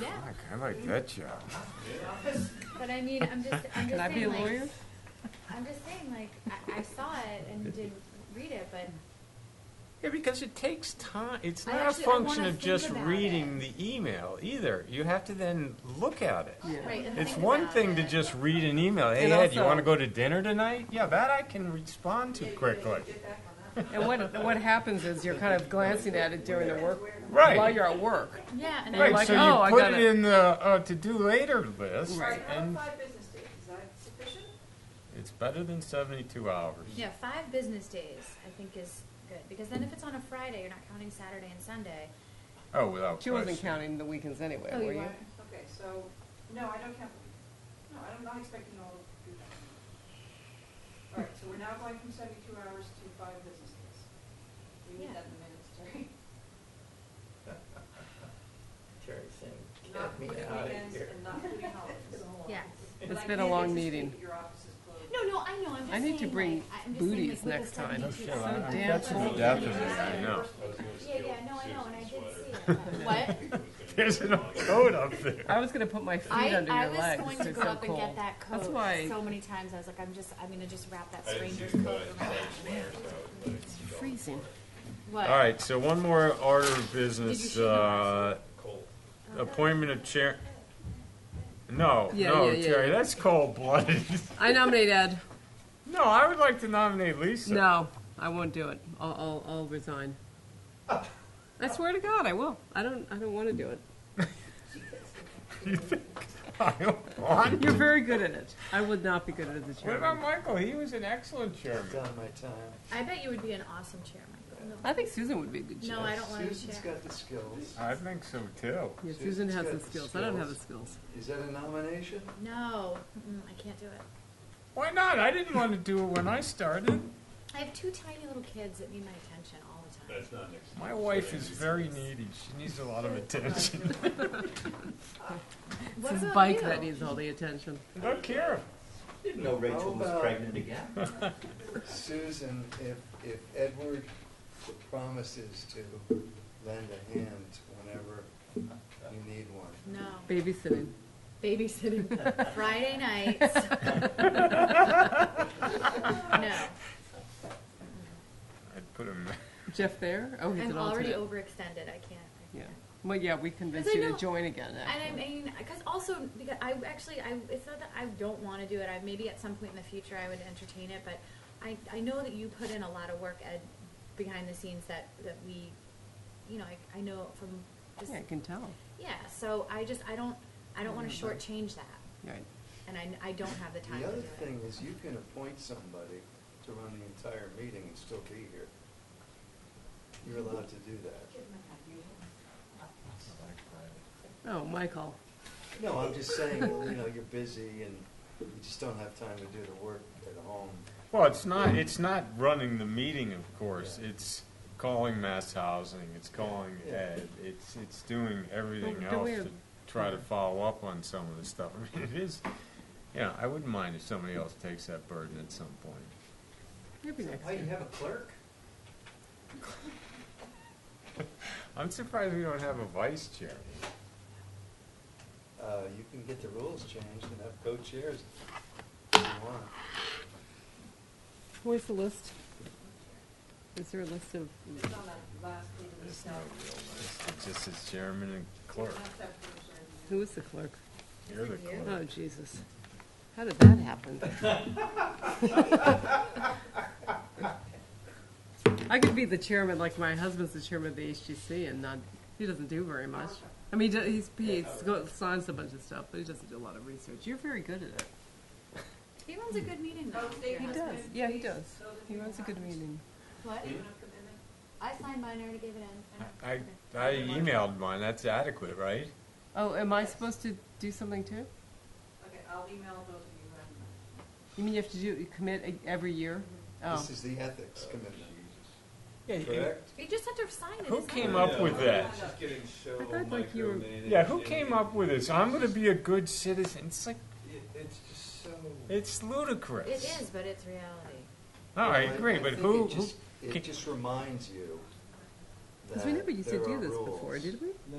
Yeah, Heck, I like that job. but I mean, I'm just, I'm Can just I be a saying, lawyer? like, I'm just saying, like, I, I saw it and didn't read it, but Yeah, because it takes time. It's I not actually- a I wanna function of think just about reading it. the email either. You have to then look at it. Yeah. Right, and It's think one about thing to it. just read an email. Hey, And Ed, you also- want to go to dinner tonight? Yeah, that I can respond to quickly. And what, what happens is you're kind of glancing at it during the work, Right. while you're at work. yeah, and I Right, Right, like, so oh, I you put gotta- it in the uh, to do later list, Right. How and about five business days? Is that sufficient? it's better than 72 hours. yeah, five business days I think is good because then if it's on a Friday, you're not counting Saturday and Sunday. Oh, without She wasn't counting the weekends anyway, Oh, were you? Okay, so, no, I don't count, no, I'm not expecting all of you. All right, so we're now going from seventy-two hours to five business days. We Yeah. need that in the minutes, Terry. Terry saying, Not get me putting out of weekends here. and not putting holidays. Yeah. But It's I been a can't long get to speak meeting. if Your office is closed. No, no, I know. I'm just I need to saying, booties like, I- I'm just saying, like, with next the time. Oh, 72 hours, shit, I- I'm like, that's that's cool. what That's I'm what saying. I know. Yeah, yeah, no, I know, and I did see it. What? There's an old code up there. I was gonna put my feet I, under I your was legs. going to It's go so up and cold. get that coat That's why, so many times. I was like, I'm just, I'm gonna just wrap that I didn't stranger's see it, coat but I saw around. it flash, so I was it's freezing. What? All right, so one more order of Did you business, shoot on uh, like, cold. appointment of chair. No, Yeah, no, yeah, yeah, Terry, yeah. that's cold blooded. I nominate Ed. No, I would like to nominate Lisa. No, I won't do it. I'll, I'll, I'll resign. I swear to God, I will. I don't, I don't wanna do it. I don't want You're to. very good at it. I would not be good at it as a What about chairman. Michael? He was an excellent chairman. Done my time. I bet you would be an awesome chairman. No, I think Susan would be a good no, chair. I don't want to Susan's chair. got the skills. I think so too. Yeah, Susan has the Susan's got skills. I don't have the skills. skills. Is that a nomination? No, mm, I can't do it. Why not? I didn't want to do it when I started. I have two tiny little kids that need my attention all the time. That's not next. My wife is very needy. She needs a lot of attention. What It's his about bike you? that needs all the attention. I don't care. Didn't know Rachel was about- pregnant again. Susan, if, if Edward promises to lend a hand whenever you need one. No, Babysitting. babysitting Friday nights. no, I'd put him. Jeff there? Oh, he's I'm an already alternate. overextended. I can't. I Yeah. can't. Well, yeah, we I convinced you know- to join again. And I actually. mean, because also because I actually I it's not that I don't want to do it. I maybe at some point in the future I would entertain it, but I I know that you put in a lot of work Ed behind the scenes that that we, you know, I I know from just Yeah, I can tell. yeah. So I just I don't I don't want to shortchange that, Right. and I I don't have the time The to other do thing it. is you can appoint somebody to run the entire meeting and still be here. You're allowed to do that. Oh, Michael. No, I'm just saying, well, you know, you're busy and you just don't have time to do the work at home. Well, it's not. It's not running the meeting, of course. It's calling mass housing. It's calling Yeah. Ed. It's it's doing everything Well, do else we to have- try to follow up on some of the stuff. I mean, it is. Yeah, I wouldn't mind if somebody else takes that burden at some point. You'll be next. Why, you have a clerk? I'm surprised we don't have a vice chair. Uh, you can get the rules changed and have co-chairs if you want. Where's the list? Is there a list of? It's on that last meeting. There's itself. no real list. It's just as chairman and clerk. That's after the surgery. Who is the clerk? You're the clerk. Oh, Jesus. How did that happen? I could be the chairman, like my husband's the chairman of the HGC, and not, he doesn't do very much. I mean, he do- he's, he go- signs a bunch of stuff, but he doesn't do a lot of research. You're very good at it. He runs a good meeting though. Oh, Dave your has husband. does. Yeah, he does. He runs a good meeting. What? Do you have commitment? I signed mine. I already gave it in. I I emailed mine. That's adequate, right? Oh, am I supposed to do something too? Okay, I'll email those of you who haven't. You mean you have to do commit e- every year? Oh, This is the ethics committee, Yeah. correct? You just have to sign it. Who it's came not- up with that? She's getting so I thought, like, you were- micromanaged. Yeah, who came up with this? I'm going to be a good citizen. It's like It- It's just so. It's ludicrous. It is, but it's reality. No, I Well, agree, I but think who, it who just- It just reminds you because we never used to that do there this are before, rules. did we?